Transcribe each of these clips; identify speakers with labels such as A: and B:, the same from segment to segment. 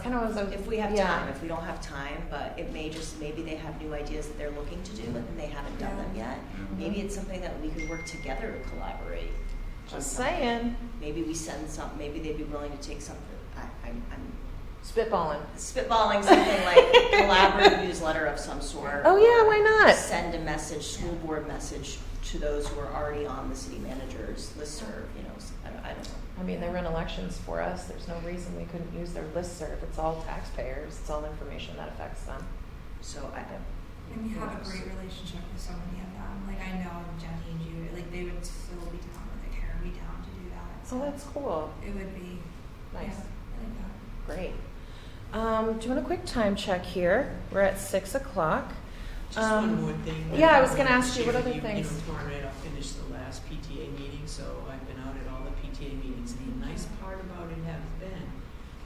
A: kind of was, I was-
B: If we have
A: yeah.
B: time, if we don't have time, but it may just, maybe they have new ideas that they're looking to do and they haven't done them yet.
A: Mhm.
B: Maybe it's something that we could work together to collaborate. on
A: Just
B: something.
A: saying,
B: Maybe we send some, maybe they'd be willing to take something, I, I'm, I'm
A: spitballing.
B: spitballing something like collaborative newsletter of some sort.
A: Oh yeah,
B: or
A: why not?
B: Send a message, school board message to those who are already on the city manager's listserv, you know, s- I don't- I don't know.
A: I mean, they run elections for us. There's no reason we couldn't use their listserv. It's all taxpayers. It's all information that affects them.
B: So I,
C: And we have a great relationship with so many of them. Like I know Jenny and Judy, like they would still be down, like hire me down to do that.
A: Oh, that's cool.
C: It would be.
A: Nice.
C: Yeah, I like
A: Great.
C: that.
A: Um, doing a quick time check here. We're at six o'clock.
D: Just
A: Um,
D: one more thing. that
A: yeah, I was
D: wanted
A: gonna
D: to
A: ask you,
D: share
A: what
D: with
A: other
D: you. You know,
A: things?
D: tomorrow night I'll finish the last PTA meeting, so I've been out at all the PTA meetings. And the nice part about it has been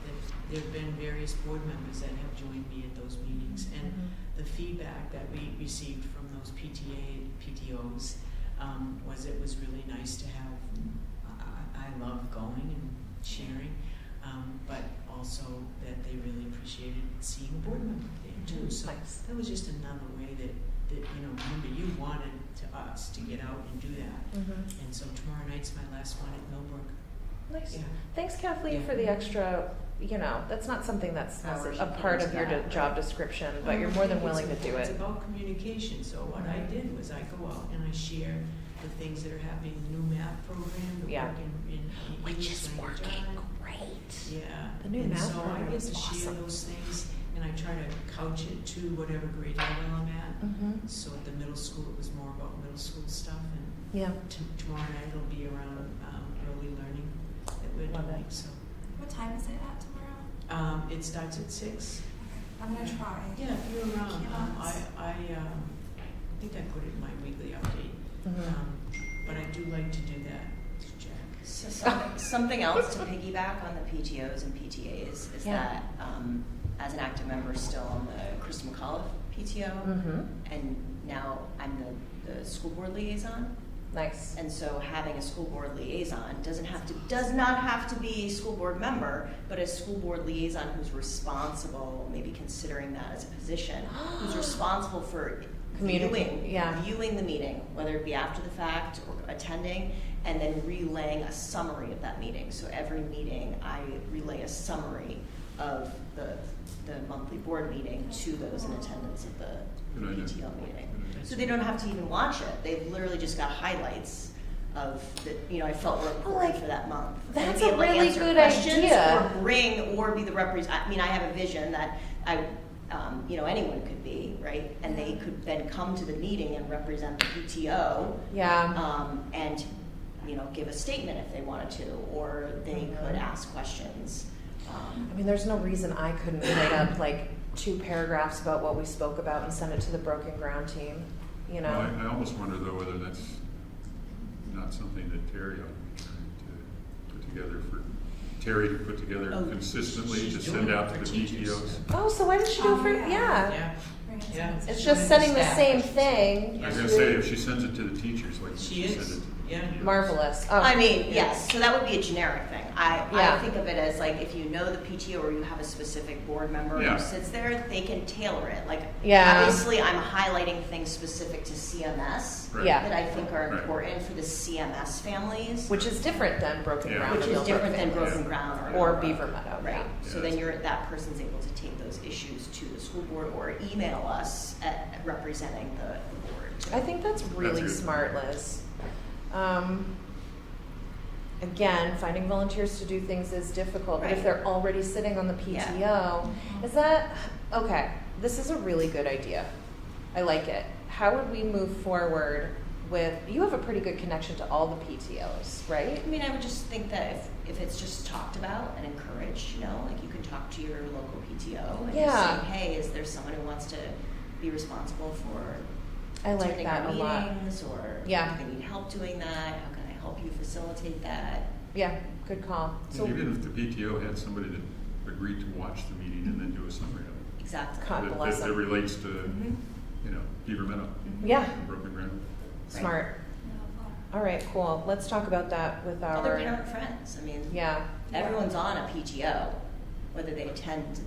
D: that there've been various board members that have joined me at those meetings. And the feedback that we received from those PTA, PTOs, um, was it was really nice to have, I- I, I love going and sharing, um, but also that they really appreciated seeing a board member there too, so
A: Mm-hmm. Nice.
D: that was just another way that, that, you know, remember you wanted to us to get out and do that.
A: Mhm.
D: And so tomorrow night's my last one at Millbrook.
A: Nice.
D: Yeah.
A: Thanks, Kathleen,
D: Yeah.
A: for the extra. You know, that's not something that's
B: Hours
A: a
B: you put
A: part
B: into
A: of your
B: that,
A: de- job
B: right.
A: description, but you're more than
D: Well, I
A: willing
D: think
A: to
D: it's-
A: do it.
D: It's about communication, so what I did was I go out and I share the things that are happening, the new math program, the
A: Yeah.
D: work in, in. in English language arts.
A: great.
D: Yeah.
A: The new
D: and
A: math
D: so I
A: program
D: get
A: is
D: to share
A: awesome.
D: those things, and I try to couch it to whatever grade level I'm at.
A: hmm
D: So at the middle school, it was more about middle school stuff, and
A: Yeah.
D: t- tomorrow night it'll be around um, early learning that we're
A: Love
D: doing.
A: it.
D: So
C: What time is it at tomorrow?
D: um, it starts at six.
C: Okay, I'm gonna try.
D: Yeah, if you're around, um, I,
C: Yes.
D: I, um, I think I put it in my weekly update,
A: Mhm.
D: um, but I do like to do that, Jack.
B: So something, something else to piggyback on the PTOs and PTAs is
A: Yeah.
B: that, um, as an active member still on the Chris McAuliffe PTO,
A: Mhm.
B: and now I'm the, the school board liaison.
A: Nice.
B: And so having a school board liaison doesn't have to, does not have to be a school board member, but a school board liaison who's responsible, maybe considering that as a position, who's responsible for
A: Communicate-
B: viewing,
A: yeah.
B: viewing the meeting, whether it be after the fact or attending, and then relaying a summary of that meeting. So every meeting, I relay a summary of the, the monthly board meeting to those in attendance at the
E: Good idea.
B: PTL meeting.
E: Good idea.
B: So they don't have to even watch it. They've literally just got highlights of the, you know, I felt were important
A: Like,
B: for that month.
A: that's
B: And
A: a
B: be able to
A: really
B: answer
A: good
B: questions
A: idea.
B: Or bring or be the represent. I mean, I have a vision that I, um, you know, anyone could be right, and they could then come to the meeting and represent the PTO
A: Yeah.
B: um, and you know give a statement if they wanted to, or they
A: Mm-hmm.
B: could ask questions. Um,
A: I mean, there's no reason I couldn't write up like two paragraphs about what we spoke about and send it to the Broken Ground team. You know.
E: Well, I, I almost wonder though whether that's not something that Terry ought to be trying to put together for, Terry to put together
D: Oh,
E: consistently
D: she's
E: to
D: doing
E: send
D: it
E: out
D: for
E: to the
D: teachers.
E: PTOs.
A: Oh, so why did she do it
C: Oh,
A: for?
C: yeah.
A: Yeah.
D: Yeah,
C: Right.
D: yeah.
A: It's
D: She's
A: just
D: doing
A: sending the
D: staff,
A: same
D: she's-
A: thing.
E: I
D: Yeah.
E: was gonna say, if she sends it to the teachers, like
D: She
E: she sent
D: is,
E: it.
D: yeah.
A: Marvelous. Oh.
B: I mean, yes, so that would be a generic thing. I,
A: Yeah.
B: I think of it as like if you know the PTO or you have a specific board member
E: Yeah.
B: who sits there, they can tailor it. Like,
A: Yeah.
B: obviously, I'm highlighting things specific to CMS
E: Right.
A: Yeah.
B: that I think are
E: Right.
B: important for the CMS families,
A: Which is different than Broken
E: Yeah.
A: Ground.
B: which
A: or
B: is
A: Millbrook
B: different than
A: Family.
B: Broken Ground or,
A: Or
B: Millbrook,
A: Beaver Meadow, yeah.
B: Right. So then
E: Yeah, that's-
B: you're that person's able to take those issues to the school board or email us at, at representing the, the board.
A: I think that's really
E: good.
A: smart, Liz. Um, again, finding volunteers to do things is difficult, but if
B: Right.
A: they're already sitting on the
B: Yeah.
A: PTO, is that okay? This is a really good idea. I like it. How would we move forward with? You have a pretty good connection to all the PTOs, right?
B: I mean, I would just think that if, if it's just talked about and encouraged, you know, like you can talk to your local PTO and
A: Yeah.
B: say, hey, is there someone who wants to be responsible for
A: I like
B: attending
A: that
B: our
A: a lot.
B: meetings or
A: Yeah.
B: do they need help doing that? How can I help you facilitate that?
A: Yeah, good call. So
E: And even if the PTO had somebody that agreed to watch the meeting and then do a summary of it.
B: Exactly.
A: God
E: that-
A: bless
E: that- That
A: them.
E: relates to,
D: Mm-hmm.
B: Mhm.
E: you know, Beaver Meadow,
B: Mm-hmm.
A: yeah,
E: and Broken Ground.
A: smart.
C: Yeah.
A: All right, cool. Let's talk about that with our
B: Other parent friends. I mean,
A: yeah.
B: everyone's on a PTO, whether they attend